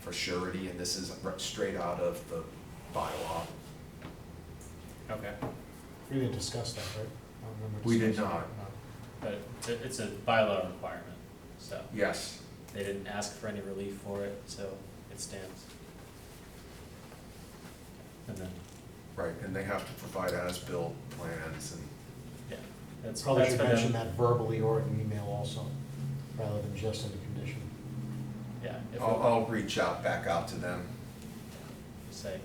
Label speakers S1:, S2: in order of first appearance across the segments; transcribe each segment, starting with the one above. S1: for surety, and this is r- straight out of the bylaw.
S2: Okay,
S3: We didn't discuss that, right? I don't remember
S1: We did
S3: discussing
S1: not.
S3: that. No.
S2: but it's a, it's a bylaw requirement, so
S1: Yes,
S2: they didn't ask for any relief for it, so it stands. And then,
S1: right, and they have to provide as-built plans and
S2: yeah, that's, that's for
S3: Probably should mention
S2: them.
S3: that verbally or in email also, rather than just in the condition.
S2: Yeah, if
S1: I'll,
S2: it,
S1: I'll reach out, back out to them.
S2: say,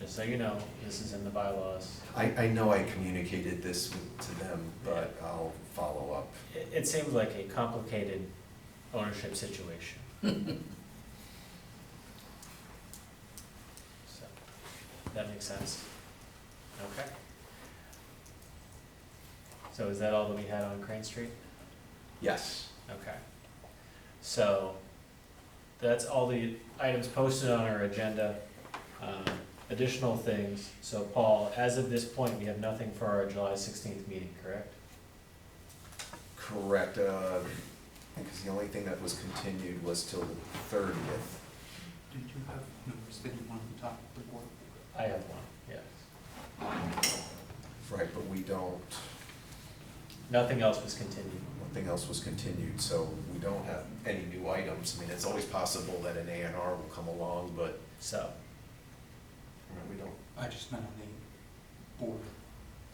S2: just so you know, this is in the bylaws.
S1: I, I know I communicated this with- to them, but I'll follow up.
S2: It, it seemed like a complicated ownership situation. So, that makes sense. Okay. So is that all that we had on Crane Street?
S1: Yes,
S2: Okay. So, that's all the items posted on our agenda. Um, Additional things, so Paul, as of this point, we have nothing for our July sixteenth meeting, correct?
S1: correct, uh, because the only thing that was continued was till the thirtieth.
S4: Did you have numbers that you wanted to talk to the board?
S2: I have one, yes.
S1: Right, but we don't,
S2: Nothing else was continued.
S1: nothing else was continued, so we don't have any new items. I mean, it's always possible that an A and R will come along, but
S2: So,
S1: you know, we don't.
S4: I just meant on the board,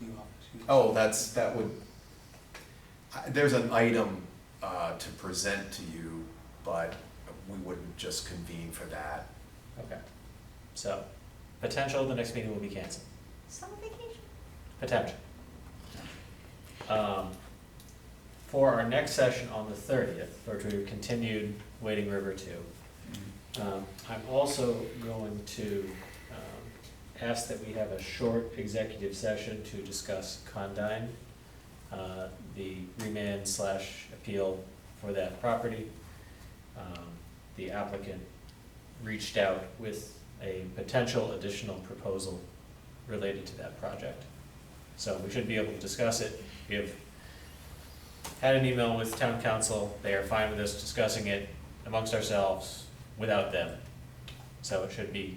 S4: the office. you know.
S1: Oh, that's, that would, I- there's an item uh, to present to you, but we wouldn't just convene for that.
S2: okay. So, potential, the next meeting will be canceled.
S5: Summer vacation?
S2: Potential. Um, For our next session on the thirtieth, or to continued Wading River two, Um, I'm also going to um, ask that we have a short executive session to discuss Condyne, uh, the remand slash appeal for that property. Um, The applicant reached out with a potential additional proposal related to that project. So we should be able to discuss it. We have had an email with town council. They are fine with us discussing it amongst ourselves without them. So it should be,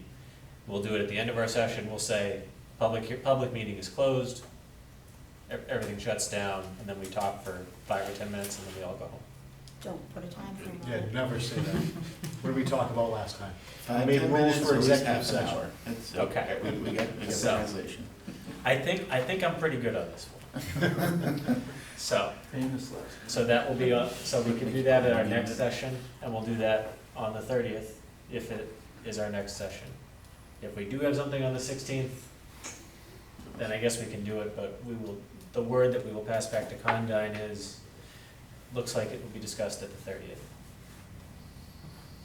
S2: we'll do it at the end of our session. We'll say, public, he- public meeting is closed. E- Everything shuts down and then we talk for five or 10 minutes and then we all go home.
S5: Don't put a time frame on
S3: Yeah,
S5: it.
S3: never say that. What did we talk about last time?
S6: Five,
S3: Made
S6: ten
S3: rules
S6: minutes
S3: for
S6: or at least
S3: executive
S6: half an
S3: session.
S6: hour. That's-
S2: Okay.
S6: We, we got, we got
S2: So-
S6: translation.
S2: I think, I think I'm pretty good on this one. So,
S6: Famous last.
S2: so that will be, on- so we can do that at our next session and we'll do that on the thirtieth if it is our next session. If we do have something on the sixteenth, then I guess we can do it, but we will, the word that we will pass back to Condyne is, looks like it will be discussed at the thirtieth.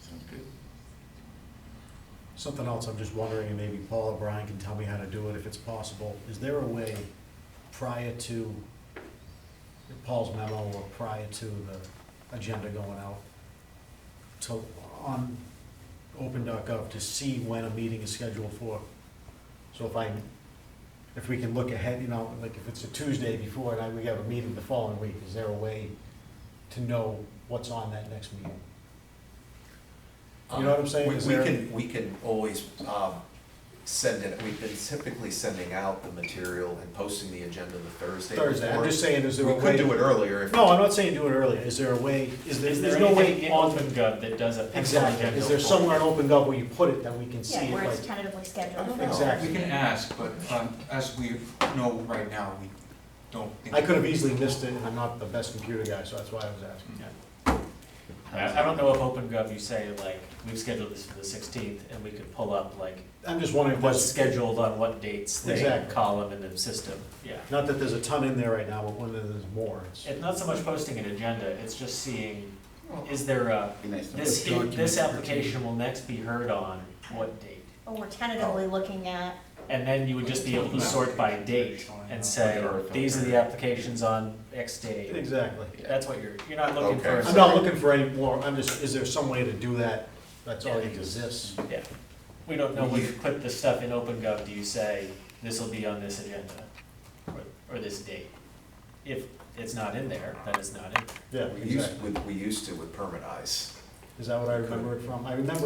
S6: Sounds good.
S3: Something else I'm just wondering, and maybe Paul or Brian can tell me how to do it if it's possible. Is there a way prior to Paul's memo or prior to the agenda going out to, on open.gov to see when a meeting is scheduled for? So if I, if we can look ahead, you know, like if it's a Tuesday before and I, we have a meeting the following week, is there a way to know what's on that next meeting?
S2: um,
S3: You know what I'm saying?
S1: We-
S3: Is
S1: We
S3: there-
S1: can, we can always um, send it, we've been typically sending out the material and posting the agenda the Thursday before.
S3: Thursday, I'm just saying, is there a
S1: We
S3: way?
S1: could do it earlier if.
S3: No, I'm not saying do it earlier, is there a way, is there,
S2: Is
S3: there's
S2: there
S3: no
S2: anything
S3: way
S2: in
S3: on,
S2: OpenGov that does a pencil
S3: exactly,
S2: agenda?
S3: is there
S2: for-
S3: somewhere in open gov where you put it that we can see
S5: Yeah,
S3: it,
S5: where
S3: like,
S5: it's tentatively
S1: I don't
S5: scheduled.
S1: know.
S3: Exactly.
S4: We can ask, but um, as we know right now, we don't think.
S3: I could have easily missed it, and I'm not the best computer guy, so that's why I was asking.
S2: I, I don't know if OpenGov, you say like, we've scheduled this for the sixteenth and we could pull up like
S3: I'm just wondering, if
S2: what's
S3: there's
S2: scheduled on what dates, the
S3: Exactly.
S2: column in the system, yeah.
S3: not that there's a ton in there right now, but when there's more, it's,
S2: It's not so much posting an agenda, it's just seeing, is there a,
S6: Be nice to know.
S2: this, this application will next be heard on what date?
S5: Or we're tentatively looking at,
S2: And then you would just be able to sort by date and say, these are the applications on X day.
S3: exactly.
S2: That's what you're, you're not looking for.
S1: Okay.
S3: I'm not looking for any more, I'm just, is there some way to do that, that's all that exists?
S2: Yeah, we don't know when you put the stuff in OpenGov, do you say, this'll be on this agenda, or, or this date? If it's not in there, then it's not in there.
S3: Yeah,
S1: We used,
S3: exactly,
S1: we we used to with permit eyes.
S3: is that what I remember it from? I remember